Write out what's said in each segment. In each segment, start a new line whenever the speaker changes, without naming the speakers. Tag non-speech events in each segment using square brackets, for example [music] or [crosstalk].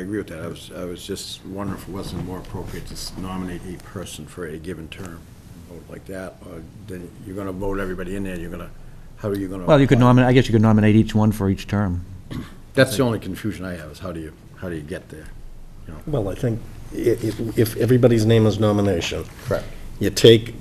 I agree with that. I was, I was just wondering if it wasn't more appropriate to s- nominate a person for a given term, vote like that, or then you're gonna vote everybody in there, you're gonna, how are you gonna?
Well, you could
apply?
nominate, I guess you could nominate each one for each term.
That's the only confusion I have, is how do you, how do you get there? you know?
Well, I think i- i- if everybody's name is nomination. [laughs]
Correct.
You take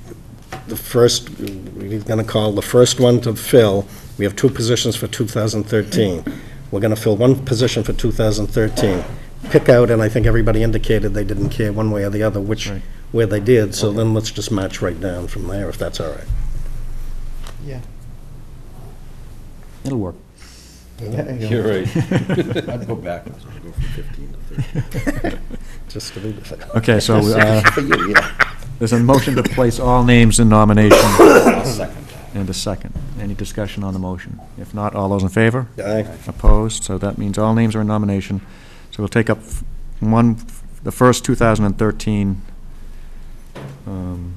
the first, we're going to call the first one to fill, we have two positions for 2013. We're going to fill one position for 2013. Pick out, and I think everybody indicated they didn't care one way or the other which,
Right.
where they did, so then let's just match right down from there, if that's all right.
Yeah.
It'll work.
You're
[laughs] I'd go backwards, I'd go from fifteen to thirteen.
[laughs]
[laughs]
Just to be fair.
Okay, so uh, there's a motion to place all names in nomination
second that.
and a second. Any discussion on the motion? If not, all those in favor?
Aye.
Opposed? So that means all names are in nomination. So we'll take up f- one, f- the first 2013 um,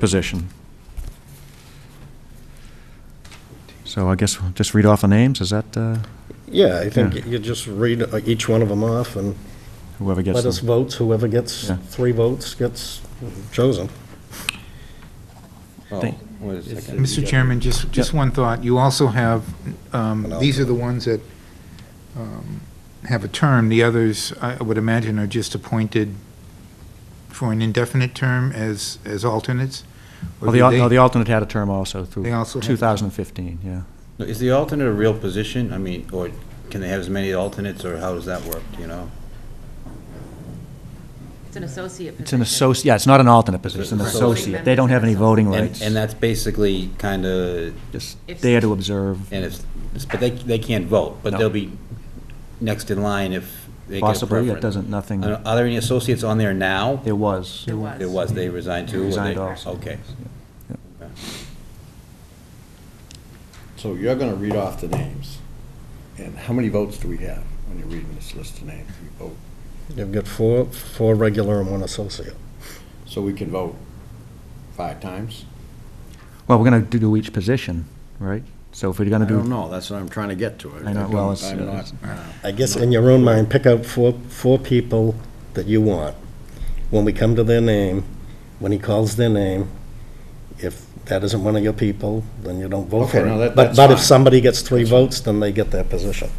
position. So I guess we'll just read off the names, is that uh,
Yeah, I think
Yeah.
you just read uh, each one of them off and
whoever gets
let us
them?
vote, whoever gets
Yeah.
three votes gets chosen.
Thank-
Mr. Chairman, just, just one thought. You also have, um, these are the ones that um, have a term. The others, I would imagine, are just appointed for an indefinite term as, as alternates? Or
Well, the
do
al-
they-
no, the alternate had a term also through
They also had-
2015, yeah.
Is the alternate a real position? I mean, or can they have as many alternates, or how does that work, do you know?
It's an associate
It's an
position.
associate, yeah, it's not an alternate position, it's an
Right.
associate. They don't have any voting
And,
rights.
and that's basically kind of,
Just
If-
there to observe,
and it's, but they, they can't vote, but
No.
they'll be next in line if they get a
possibly, it
preference.
doesn't, nothing,
Are are there any associates on there now?
there was.
There was.
There was, they resigned too? or they-
Resigned also.
Okay.
So you're gonna read off the names, and how many votes do we have when you're reading this list of names? We vote,
You've got four, four regular and one associate.
so we can vote five times?
Well, we're going to do each position, right? So if we're
I
going to
don't
do,
know, that's what I'm trying to get to.
I know, well, it's-
I'm not- uh,
I guess in your own mind, pick out four, four people that you want. When we come to their name, when he calls their name, if that isn't one of your people, then you don't vote for
Okay,
it.
no, that-
But-
that's
But if
fine.
somebody gets three votes, then they get that position.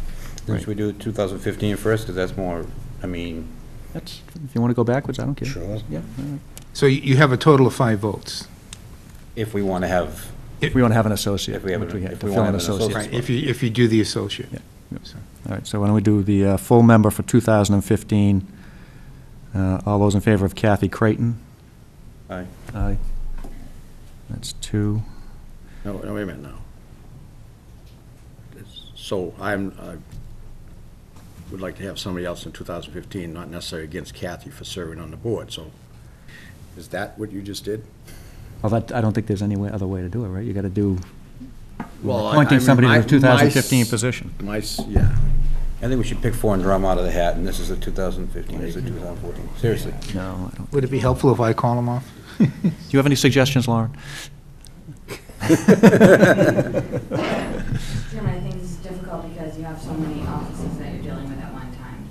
Should we do 2015 first, because that's more, I mean,
that's, if you want to go backwards, I don't care.
Sure.
Yeah, all right.
So you- you have a total of five votes.
if we want to have,
If we want to have an associate,
If we have
which
an-
we had,
if
to
we
fill
wanna
an
have an
associate.
associate.
Right, if you, if you do the associate.
Yeah, yeah.
So-
All right, so why don't we do the uh, full member for 2015? Uh, All those in favor of Kathy Creighton?
Aye.
Aye. That's two.
No, no, wait a minute now. It's- So I'm, I would like to have somebody else in 2015, not necessarily against Kathy for serving on the board, so is that what you just did?
Well, that, I don't think there's any way, other way to do it, right? You got to do,
Well, I- I
appointing
mean,
somebody
my-
to
my
the 2015
s-
position.
My, s- yeah,
I think we should pick four and drum out of the hat, and this is the 2015, this is the 2014, seriously.
No, I don't.
Would it be helpful if I call them off?
Do you have any suggestions, Lauren?
Chairman, I think this is difficult because you have so many offices that you're dealing with at one time.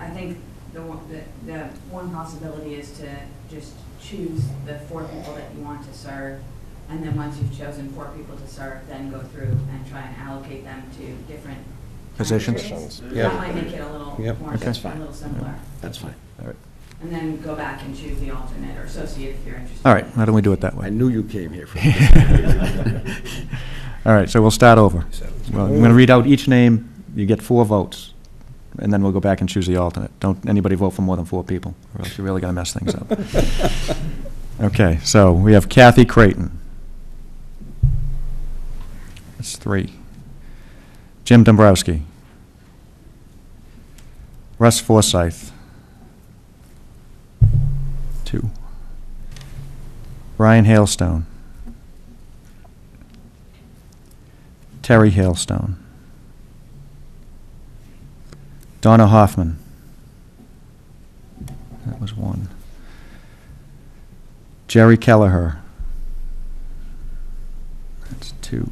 I think the, one- the, the one possibility is to just choose the four people that you want to serve, and then once you've chosen four people to serve, then go through and try and allocate them to different. time
Positions?
periods.
Yeah.
That might make it a little
Yep,
more,
that's
a little simpler.
[laughs] that's fine.
And then go back and choose the alternate or associate if you're interested.
All right, why don't we do it that
I
way?
knew you came here for [laughs]
[laughs] All right, so we'll start over. Well, I'm going to read out each name. You get four votes, and then we'll go back and choose the alternate. Don't anybody vote for more than four people, or else you're really going to mess things
[laughs]
up. Okay, so we have Kathy Creighton. That's three. Jim Dombrowski. Russ Forsyth. Two. Ryan Hailstone. Terry Hailstone. Donna Hoffman. That was one. Jerry Kelleher. That's two.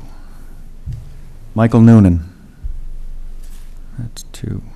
Michael Noonan. That's two.